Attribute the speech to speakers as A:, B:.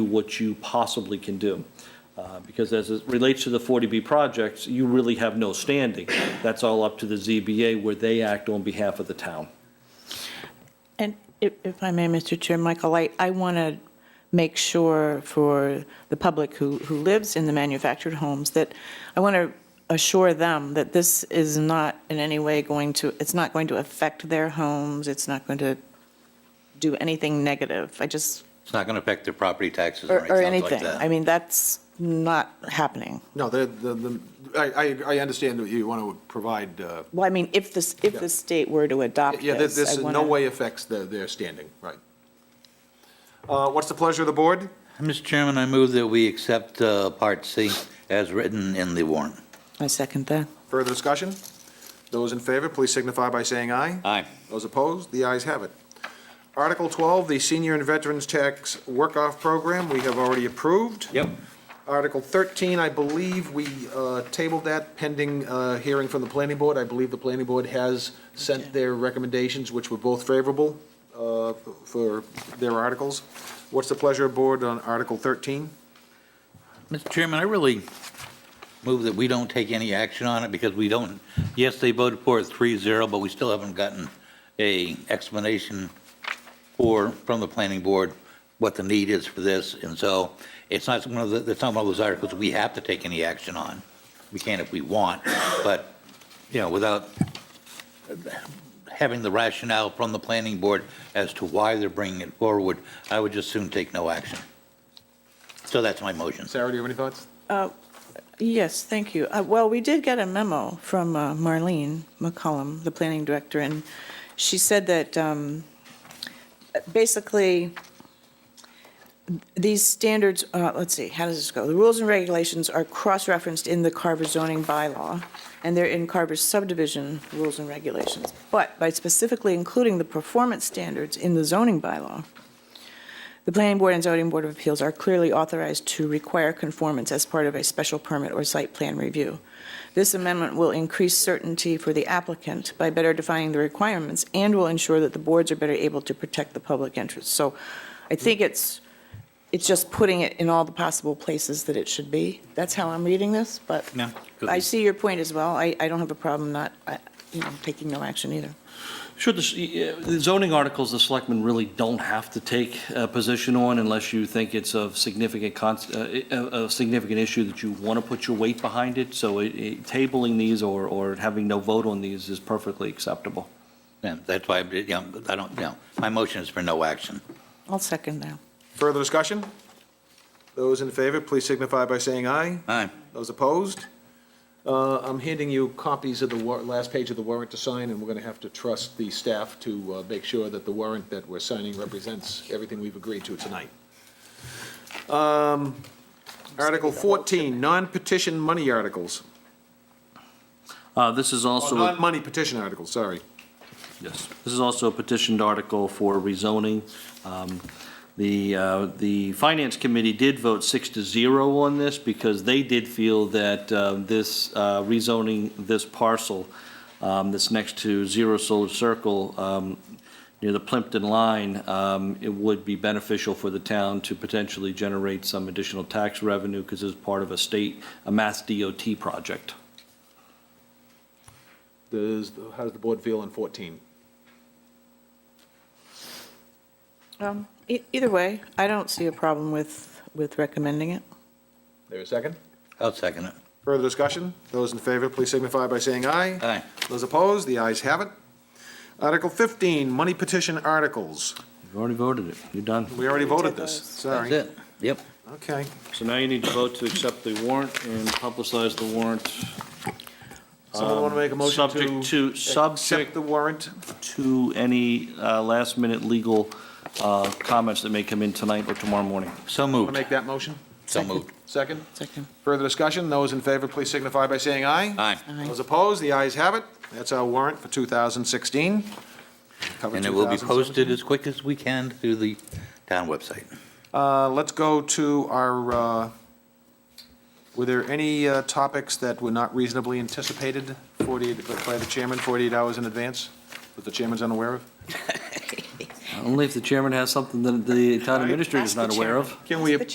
A: what you possibly can do. Uh, Because as it relates to the 40B projects, you really have no standing. That's all up to the ZBA where they act on behalf of the town.
B: And if, if I may, Mr. Chair, Michael, I, I want to make sure for the public who, who lives in the manufactured homes that, I want to assure them that this is not in any way going to, it's not going to affect their homes, it's not going to do anything negative. I just,
C: It's not going to affect their property taxes or
B: or, or
C: anything like
B: anything.
C: that.
B: I mean, that's not happening.
D: No, the, the, the- I, I, I understand that you want to provide, uh,
B: Well, I mean, if this, if the state were to adopt this.
D: yeah, this this
B: I
D: in no
B: wanna-
D: way affects their, their standing, right. Uh, What's the pleasure of the board?
C: Mr. Chairman, I move that we accept uh, Part C as written in the warrant.
B: I second that.
D: Further discussion? Those in favor, please signify by saying aye.
C: Aye.
D: Those opposed, the ayes have it. Article 12, the Senior and Veterans Tax Work-Off Program, we have already approved.
C: Yep.
D: Article 13, I believe we uh, tabled that pending uh, hearing from the planning board. I believe the planning board has sent their recommendations, which were both favorable uh, for their articles. What's the pleasure of board on Article 13?
C: Mr. Chairman, I really move that we don't take any action on it because we don't, yes, they voted for it 3-0, but we still haven't gotten a explanation or, from the planning board, what the need is for this. And so it's not one of the, it's not one of those articles we have to take any action on. We can if we want, but, you know, without having the rationale from the planning board as to why they're bringing it forward, I would just soon take no action. So that's my motion.
D: Sarah, do you have any thoughts?
B: Yes, thank you. Uh, Well, we did get a memo from uh, Marlene McCollum, the planning director, and she said that um, basically, these standards, uh, let's see, how does this go? The rules and regulations are cross-referenced in the Carver zoning bylaw, and they're in Carver's subdivision rules and regulations. But by specifically including the performance standards in the zoning bylaw, the planning board and zoning board of appeals are clearly authorized to require conformance as part of a special permit or site plan review. This amendment will increase certainty for the applicant by better defining the requirements and will ensure that the boards are better able to protect the public interest. So I think it's, it's just putting it in all the possible places that it should be. That's how I'm reading this, but
C: Yeah.
B: I see your point as well. I, I don't have a problem not, uh, you know, taking no action either.
A: Sure, the uh, the zoning articles, the selectmen really don't have to take a position on unless you think it's of significant, cons- uh, a a significant issue that you want to put your weight behind it. So it- it- tabling these or or having no vote on these is perfectly acceptable.
C: Yeah, that's why, you know, I don't, you know, my motion is for no action.
B: I'll second that.
D: Further discussion? Those in favor, please signify by saying aye.
C: Aye.
D: Those opposed? Uh, I'm handing you copies of the war, last page of the warrant to sign, and we're going to have to trust the staff to uh, make sure that the warrant that we're signing represents everything we've agreed to tonight. Um, Article 14, non-petition money articles,
A: Uh, This is
D: Or
A: also. a-
D: non-money petition articles, sorry.
A: Yes. This is also a petitioned article for rezoning. Um, The, uh, the Finance Committee did vote six to zero on this because they did feel that uh, this uh, rezoning, this parcel um, that's next to Zero Solar Circle um, near the Plimpton line, um, it would be beneficial for the town to potentially generate some additional tax revenue because it's part of a state, a Mass DOT project.
D: Does, how does the board feel on 14?
B: Um, e- Either way, I don't see a problem with, with recommending it.
D: There a second?
C: I'll second it.
D: Further discussion? Those in favor, please signify by saying aye.
C: Aye.
D: Those opposed, the ayes have it. Article 15, money petition articles.
A: You've already voted it. You're done.
D: We already voted this,
C: That's
D: sorry.
C: it. Yep.
D: Okay.
A: So now you need to vote to accept the warrant and publicize the warrant.
D: Someone want to make a motion to?
A: Um, Subject to,
D: Accept
A: subject
D: the warrant.
A: to any uh, last-minute legal uh, comments that may come in tonight or tomorrow morning.
C: So
D: Want to
C: moved.
D: make that motion?
C: So moved.
D: Second?
B: Second.
D: Further discussion? Those in favor, please signify by saying aye.
C: Aye.
B: Aye.
D: Those opposed, the ayes have it. That's our warrant for 2016. Cover
C: And it will be
D: 2017.
C: posted as quick as we can through the town website.
D: Uh, Let's go to our, uh, were there any uh, topics that were not reasonably anticipated 48, by the chairman, 48 hours in advance, that the chairman's unaware of?
A: Only if the chairman has something that the town
D: Aye.
A: administrator is not aware of.
D: Can we,